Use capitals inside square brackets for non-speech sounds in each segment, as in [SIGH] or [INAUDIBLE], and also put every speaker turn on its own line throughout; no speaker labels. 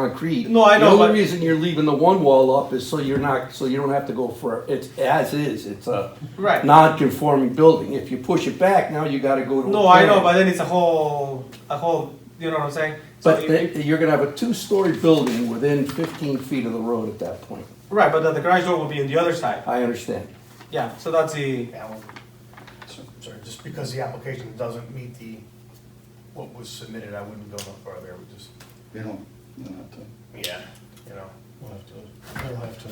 concrete.
No, I know,
The
but-
only reason you're leaving the one wall up is so you're not, so you don't have to go for, it's as is, it's a
Right.
non-conforming building. If you push it back, now you gotta go to. a
No, I know,
plan.
but then it's a whole, a whole, you know what I'm saying? So
But
you-
th- you're gonna have a two-story building within fifteen feet of the road at that point.
Right, but then the garage door will be on the other side.
I understand.
Yeah, so that's the,
Yeah, well, so- sorry, just because the application doesn't meet the, what was submitted, I wouldn't go no further, I would just,
You don't, you don't have to.
yeah, you know.
We'll have to, we'll have to.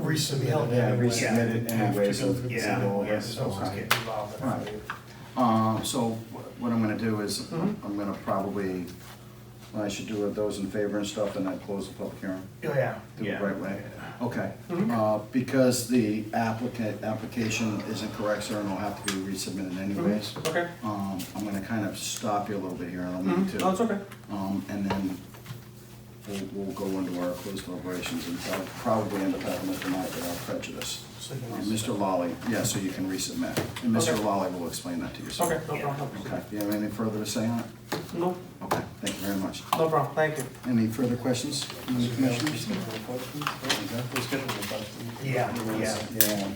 Resubmit
Yeah,
anyway.
resubmit it
Have to
anyway,
go through
so
the
yeah,
same
yeah,
process,
so
it's
fine.
getting involved in
Right.
it.
Uh, so wh- what I'm gonna do is,
Mhm.
I'm gonna probably, what I should do with those in favor and stuff, and I close the public hearing.
Oh, yeah.
Do it
Yeah.
right way. Okay,
Mhm.
uh, because the applicant, application isn't correct, sir, and will have to be resubmitted
Mm-hmm.
anyways.
okay.
Um, I'm gonna kind of stop you a little bit here, I don't need
Mhm, No, it's
to.
okay.
Um, and then we'll, we'll go into our closed deliberations, and I'll probably end up having it tonight without prejudice.
So you
Uh,
can resubmit.
Mr. Lolly, yeah, so you can resubmit, and Mr.
Okay.
Lolly will explain that to you. sir.
Okay, no
Yeah.
problem.
Okay, do you have anything further to say on it?
No,
Okay, thank you very much.
no problem, thank you.
Any further questions, commissioners?
Let's get it in the budget.
Yeah, yeah.
Yeah,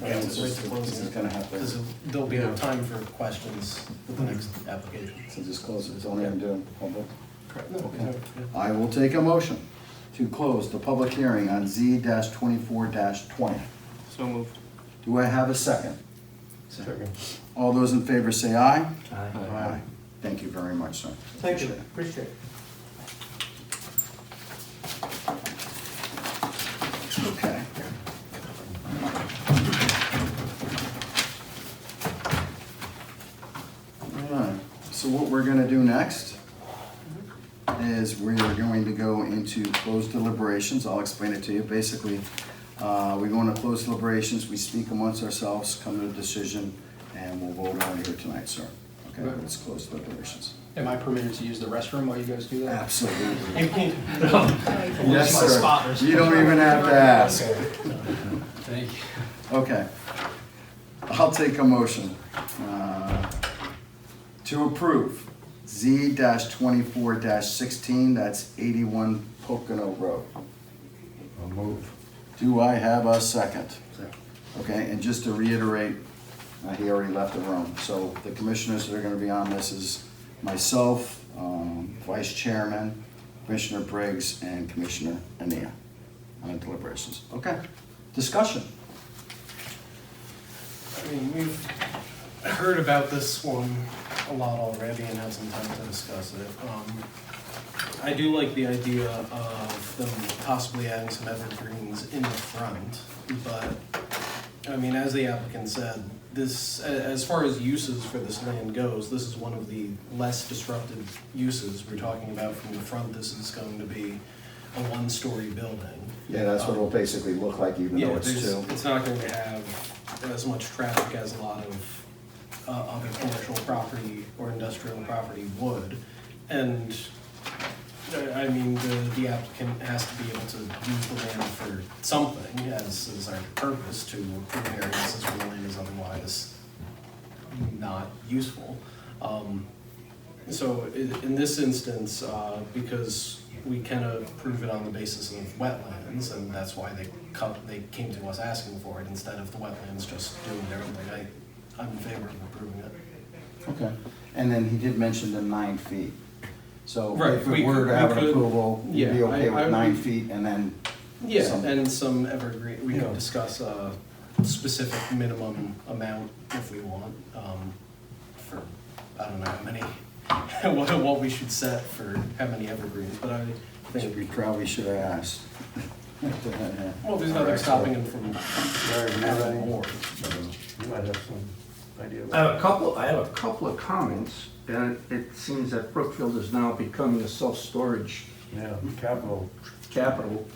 Yeah, it's
this
just-
is gonna have to,
Because there'll be no time for questions with the next application.
so just close it, it's only gonna do it public.
Correct.
Okay. I will take a motion to close the public hearing on Z twenty-four twenty.
So moved.
Do I have a second? All those in favor say aye. Aye. Thank you very much, sir.
Thank you, appreciate it.
Okay. Alright, so what we're gonna do next is we're going to go into closed deliberations, I'll explain it to you, basically, uh, we go into closed deliberations, we speak amongst ourselves, come to a decision, and we'll vote on here tonight, sir. Okay,
Right.
it's closed deliberations.
Am I permitted to use the restroom while you guys do that? [LAUGHS]
Absolutely.
You can,
Yes, sir, you don't even have to ask.
Thank you.
Okay. I'll take a motion uh, to approve Z twenty-four sixteen, that's eighty-one Pocono Road.
I'll move.
Do I have a second? Okay, and just to reiterate, uh, he already left the room, so the commissioners that are gonna be on this is myself, um, Vice Chairman, Commissioner Briggs, and Commissioner Anea on deliberations. Okay, discussion.
I mean, we've heard about this one a lot already and had some time to discuss it. Um, I do like the idea of them possibly adding some evergreens in the front, but, I mean, as the applicant said, this, a- as far as uses for this land goes, this is one of the less disruptive uses we're talking about from the front. This is going to be a one-story building.
Yeah, that's what it'll basically look like, even
Yeah,
though it's
there's,
two.
it's not going to have as much traffic as a lot of uh, other commercial property or industrial property would. And, uh, I mean, the, the applicant has to be able to use the land for something, as is our purpose to approve variances where the land is otherwise not useful. Um, so in, in this instance, uh, because we kind of prove it on the basis of wetlands, and that's why they come, they came to us asking for it instead of the wetlands just doing their own thing. I, I'm in favor of approving it.
Okay, and then he did mention the nine feet. So
Right,
if
we
it were
could-
to have
we
an
could-
approval, you'd be
yeah,
okay
I- I
with
would
nine
be-
feet and then,
Yeah,
Some-
and some evergreen, we
Yeah.
can discuss a specific minimum amount if we want, um, for, I don't know how many, [LAUGHS] what, what we should set for how many evergreens, but I
think we
think,
probably should have asked. [LAUGHS]
well, there's nothing stopping him from having more.
You might have some idea.
I have a Uh, couple, I have a couple of comments, and it seems that Brookfield is now becoming a self-storage
Yeah, capital.
capital.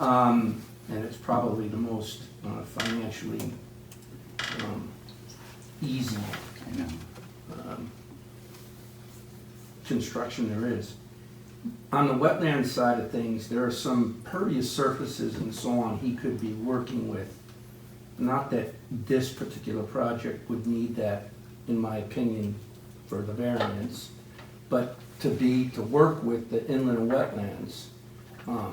Um, and it's probably the most uh, financially, um, easy,
I know.
um, construction there is. On the wetland side of things, there are some pervious surfaces and so on he could be working with. Not that this particular project would need that, in my opinion, for the variance, but to be, to work with the inland wetlands Um,